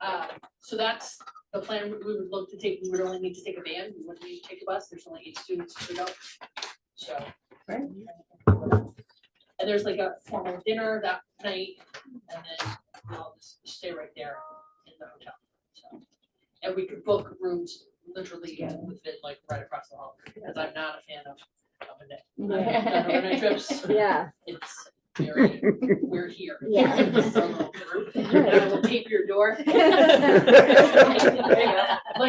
Uh, so that's the plan we- we would look to take, we would only need to take a van, we wouldn't need to take a bus, there's only eight students per adult, so. And there's like a formal dinner that night, and then we'll just stay right there in the hotel, so. And we could book rooms literally within like right across the hall, because I'm not a fan of of a day. uh, I've done overnight trips, Yeah. it's very, we're here. Yeah. It's a little group, and I will tape your door. Like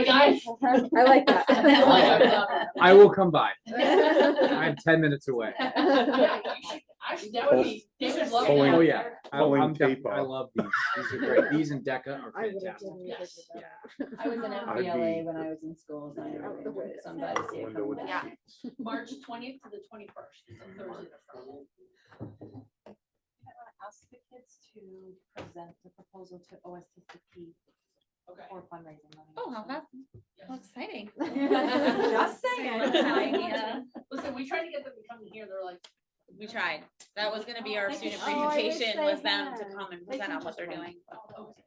I, I like that. I I will come by. Yeah. I'm ten minutes away. yeah, you should, I should, that would be, they would love Pulling- Oh, that. yeah. I, Pulling I'm def- tape I off. love these. These are great. These and DECA are I would've fantastic. done Yes. this Yeah. I was in I'd be- FBLA when I was in school, so I Out the window. invited somebody out the to window come with the back. seats. March twentieth to the twenty-first, is a Thursday to Friday. ask the kids to present the proposal to OSTCP Okay. for fundraising money. Oh, how So- fast, yes. how exciting. Just Listen, we tried to get them to come here, they're like. We tried. That was gonna be our They student can- oh, I wish presentation, they was them to had. come and They present can on what just they're run. doing. oh, "Okay."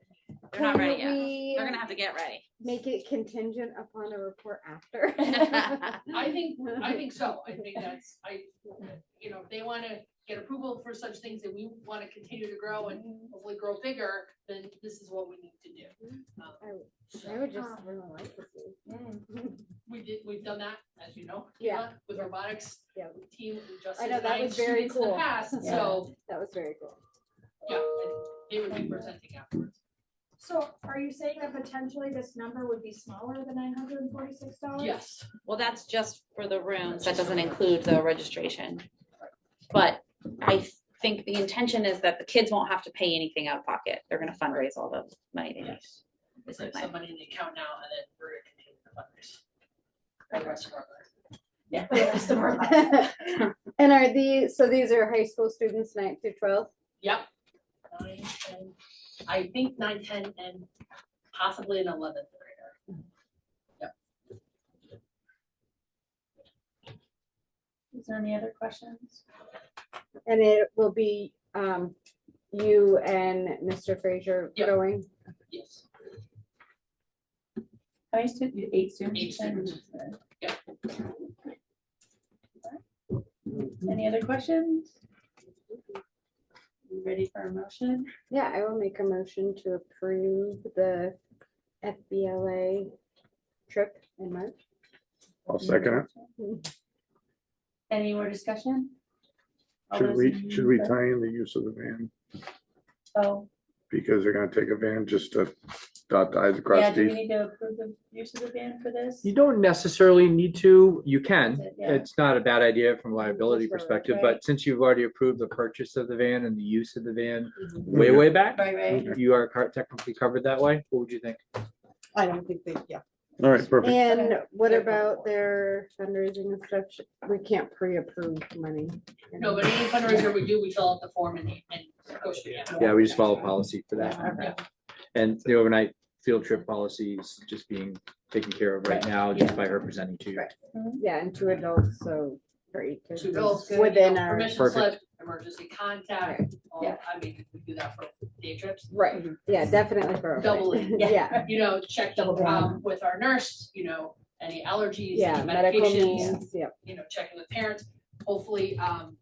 They're not ready Couldn't yet. we They're gonna have to get ready. Make it contingent upon a report after. I think, I think so, I think that's, I, you know, if they wanna get approval for such things and we wanna continue to grow and hopefully grow bigger, then this is what we need to do. Um, Mm-hmm. I would- I so would just really like to see. We did, we've done that, as you know. Yeah. Kayla, With robotics. Yeah. with Team, we just. I know, that designed was very students in the cool. Past, Yeah. so, That was very cool. yeah, and they would be presenting afterwards. So are you saying that potentially this number would be smaller than nine hundred and forty-six Oh, dollars? Yes, Well, that's just for the rooms. That doesn't include the registration. But I think the intention is that the kids won't have to pay anything out of pocket. They're gonna fundraise all the money they need. yes. This Like is my- some money in the account now and then we're gonna continue to fundraise. Or the rest of our- And are these, so these are high school students ninth through twelfth? Yep. Nine, ten, I think nine, ten, and possibly an eleventh grader. Is there any other questions? And it will be um you and Mr. Frazier Yeah. going? Yes. How many students, eight students? Eight students. Yep. Any other questions? You Ready for a motion? Yeah, I will make a motion to approve the FBLA trip in March. I'll second it. Any more discussion? All Should those we, in should we favor? tie in the use of the van? Oh, Because they're gonna take a van just to dot the i's yeah, across do the we need to approve the use of the van for this? You don't necessarily need to. You Is can. it? Yeah. It's not a bad idea from a liability Just for- perspective, right. but since you've already approved the purchase of the van and the use of the van way, way back, Right, right. you are car- technically covered that way. What would you think? I don't think they, yeah. All right, perfect. And what They're about helpful. their fundraising and such? We can't pre-approve money. No, but any fundraiser we do, we fill out the form and, and go through it. Yeah, we just follow policy for Yeah. that. And the overnight field trip policy is just being taken care of right now just by her presenting to you. Right. Yeah, and two adults, so for eight kids. Two girls, you Within know, our- permission Perfect. slip, emergency contact, all, I mean, we do that for day trips. Right, yeah, definitely for. Double it. Yeah, You know, check Double um, down. with our nurse, you know, any allergies, yeah, any medical medications, needs, yep. you know, checking with parents. Hopefully, um,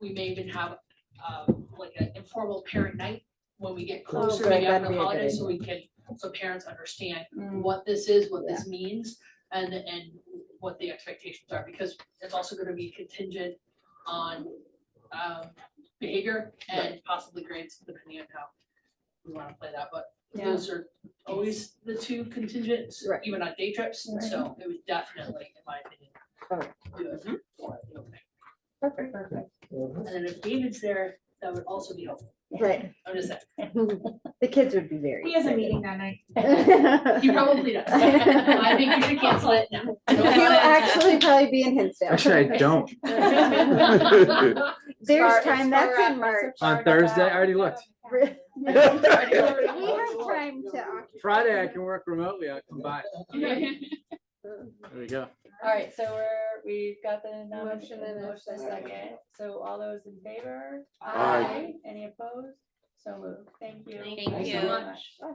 we may even have, um, like an informal parent night when we get closer, good, maybe that'd after be the a good holidays, so we can, so parents understand Mm. what this is, what this means, and, and what the expectations are, because it's also gonna be contingent on, um, behavior and possibly grades, depending on how we wanna play that, but Yeah. those are always the two contingents, Right. even on day trips, Right. so it was definitely, in my opinion, Okay. do it for the opening. Perfect. Perfect. And then if David's there, that would also be helpful. Right, I'm just saying, the kids would be very. He has a meeting that night. excited. he probably does. I think you should cancel it now. Don't He'll actually probably be in Actually, Hinsdale. I don't. want it. There's Start- time, that's in March. On Thursday, I already looked. We have time to. occupy- Friday, I can work remotely. I'll come by. There we go. All right, so we're, we've got the nomination, Motion and a motion second. second. So all those in favor? Aye. Any opposed? So moved. Thank you. Thank so you. much.